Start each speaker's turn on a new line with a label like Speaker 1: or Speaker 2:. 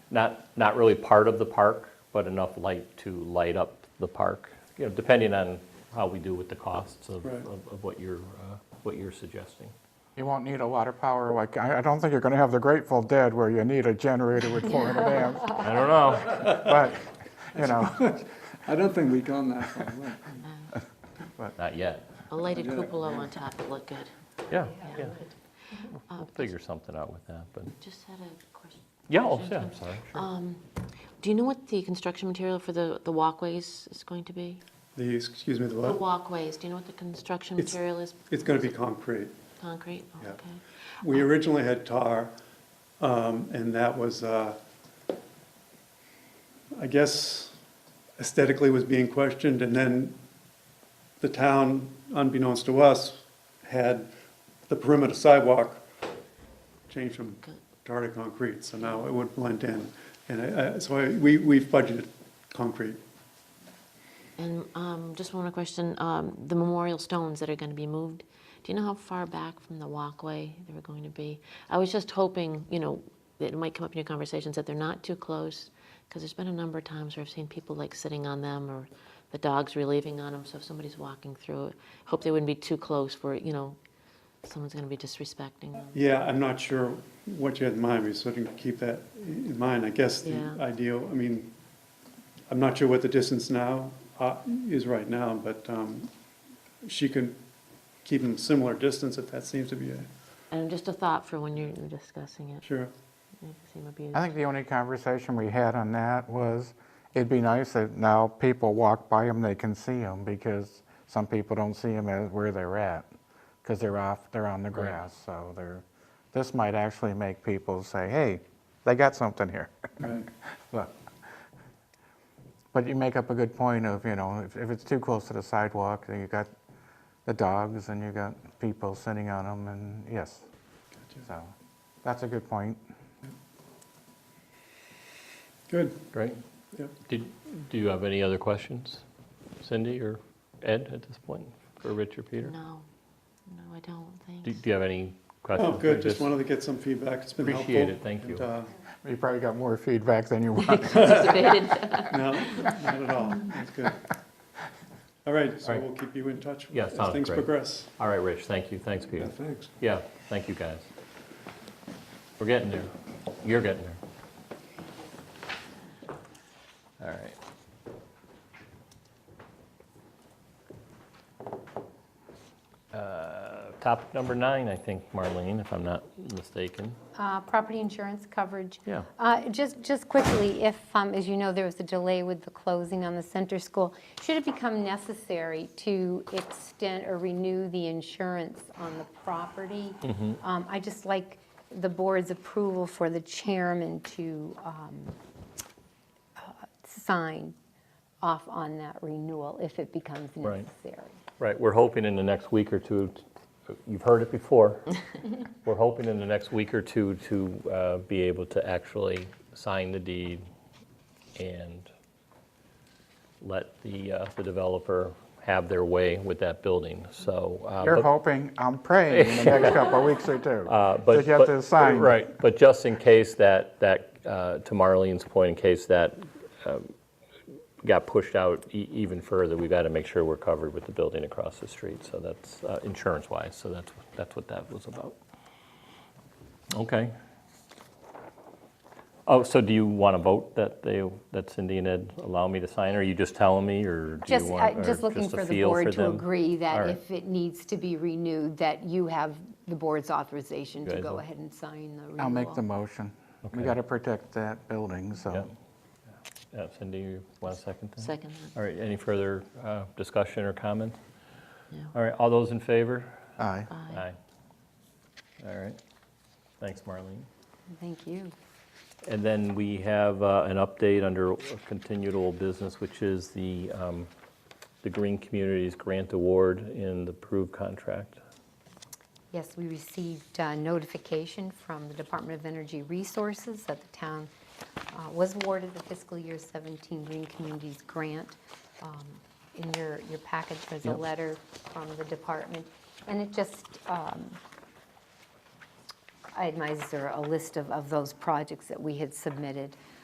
Speaker 1: not, not really part of the park, but enough light to light up the park, you know, depending on how we do with the costs of,
Speaker 2: Right.
Speaker 1: of of what you're, uh, what you're suggesting.
Speaker 3: You won't need a lot of power, like, I I don't think you're going to have the Grateful Dead where you need a generator with 400 amps,
Speaker 1: I don't know.
Speaker 3: but, you know,
Speaker 2: I don't think we've gone that far. right?
Speaker 1: Not yet.
Speaker 4: A lighted
Speaker 2: Yeah.
Speaker 4: cupola on top would look good.
Speaker 1: Yeah, yeah.
Speaker 4: Yeah.
Speaker 1: We'll figure something out with that, but,
Speaker 4: Just had a question.
Speaker 1: yeah, oh, yeah, I'm sorry, sure.
Speaker 4: Um, Do you know what the construction material for the, the walkways is going to be?
Speaker 2: The, excuse me, the
Speaker 4: The
Speaker 2: what?
Speaker 4: walkways, do you know what the construction
Speaker 2: It's-
Speaker 4: material is?
Speaker 2: It's going to be concrete.
Speaker 4: Concrete? Oh,
Speaker 2: Yeah.
Speaker 4: Okay.
Speaker 2: We originally had tar, um, and that was, uh, I guess aesthetically was being questioned, and then the town, unbeknownst to us, had the perimeter sidewalk changed from tar to concrete, so now it would blend in. And I, I, so I, we, we've budgeted concrete.
Speaker 4: And um, just one more question, um, the memorial stones that are going to be moved, do you know how far back from the walkway they were going to be? I was just hoping, you know, that it might come up in your conversations, that they're not too close, because there's been a number of times where I've seen people like sitting on them, or the dogs relieving on them, so if somebody's walking through, it, hope they wouldn't be too close where, you know, someone's going to be disrespecting them.
Speaker 2: Yeah, I'm not sure what you had in mind, we sort of keep that in mind, I guess the
Speaker 4: Yeah.
Speaker 2: ideal, I mean, I'm not sure what the distance now, uh, is right now, but, um, she can keep them similar distance if that seems to be a,
Speaker 4: And just a thought for when you're you're discussing it.
Speaker 2: sure.
Speaker 4: Maybe it would be-
Speaker 3: I think the only conversation we had on that was, it'd be nice that now people walk by them, they can see them, because some people don't see them at where they're at, because they're off, they're on the grass, so they're, this might actually make people say, hey, they got something here.
Speaker 2: Right.
Speaker 3: But but you make up a good point of, you know, if, if it's too close to the sidewalk, then you got the dogs and you got people sitting on them and, yes. So, that's a good point.
Speaker 2: Good,
Speaker 1: Great.
Speaker 2: yep.
Speaker 1: Did, do you have any other questions, Cindy or Ed at this point, for Rich or Peter?
Speaker 4: No, no, I don't,
Speaker 1: Do
Speaker 4: thanks.
Speaker 1: do you have any
Speaker 2: Oh,
Speaker 1: questions? I
Speaker 2: good, just wanted to get some feedback, it's been helpful.
Speaker 1: Appreciate it, thank you.
Speaker 2: And, uh,
Speaker 3: You probably got more feedback than you want.
Speaker 1: Uh,
Speaker 4: Anticipated.
Speaker 2: No, not at all, that's good. All right,
Speaker 1: All
Speaker 2: so
Speaker 1: right.
Speaker 2: we'll keep you in touch
Speaker 1: Yeah,
Speaker 2: as
Speaker 1: sounds
Speaker 2: things
Speaker 1: great.
Speaker 2: progress.
Speaker 1: All right, Rich, thank you, thanks, Peter.
Speaker 2: thanks.
Speaker 1: Yeah, thank you, guys. We're getting there. You're getting there. All right. Uh, Topic number nine, I think, Marlene, if I'm not mistaken.
Speaker 5: Uh, property insurance coverage.
Speaker 1: Yeah.
Speaker 5: Uh, Just, just quickly, if, um, as you know, there was a delay with the closing on the center school, should it become necessary to extend or renew the insurance on the property?
Speaker 1: Mm-hmm.
Speaker 5: Um, I just like the board's approval for the chairman to um, uh, sign off on that renewal if it becomes
Speaker 1: Right.
Speaker 5: necessary.
Speaker 1: Right, we're hoping in the next week or two, t- you've heard it before. We're hoping in the next week or two to uh, be able to actually sign the deed and let the uh, the developer have their way with that building, so. uh,
Speaker 3: You're
Speaker 1: but-
Speaker 3: hoping, I'm praying in the next couple of weeks or two.
Speaker 1: uh, but-
Speaker 3: That you have
Speaker 1: but-
Speaker 3: to sign.
Speaker 1: Right, but just in case that, that, uh, to Marlene's point, in case that um, got pushed out e- even further, we've got to make sure we're covered with the building across the street, so that's, uh, insurance-wise, so that's, that's what that was about. Okay. Oh, so do you want to vote that they, that Cindy and Ed allow me to sign, or are you just telling me, or do you
Speaker 5: Just,
Speaker 1: want?
Speaker 5: uh,
Speaker 1: or
Speaker 5: just looking
Speaker 1: a
Speaker 5: for the
Speaker 1: feel
Speaker 5: board to
Speaker 1: them?
Speaker 5: agree
Speaker 1: All
Speaker 5: that
Speaker 1: right.
Speaker 5: if it needs to be renewed, that you have the board's authorization
Speaker 1: Guys,
Speaker 5: to
Speaker 1: I'll-
Speaker 5: go ahead and sign the renewal.
Speaker 3: I'll make the motion.
Speaker 1: Okay.
Speaker 3: We got to protect that building,
Speaker 1: Yeah.
Speaker 3: so.
Speaker 1: Um, Yeah, Uh, Cindy, you want a second? then?
Speaker 4: Second, that.
Speaker 1: All right, any further uh, discussion or comment?
Speaker 4: No.
Speaker 1: All right, all those in favor?
Speaker 3: Aye.
Speaker 1: Aye. All right, thanks, Marlene.
Speaker 5: Thank you.
Speaker 1: And then we have uh, an update under continued old business, which is the, um, the Green Communities Grant Award in the approved contract.
Speaker 5: Yes, we received uh, notification from the Department of Energy Resources that the town uh, was awarded the fiscal year 17 Green Communities Grant. Um, In your, your package, there's a
Speaker 1: Yep.
Speaker 5: letter from the department, and it just um, itemizes or a list of, of those projects that we had submitted.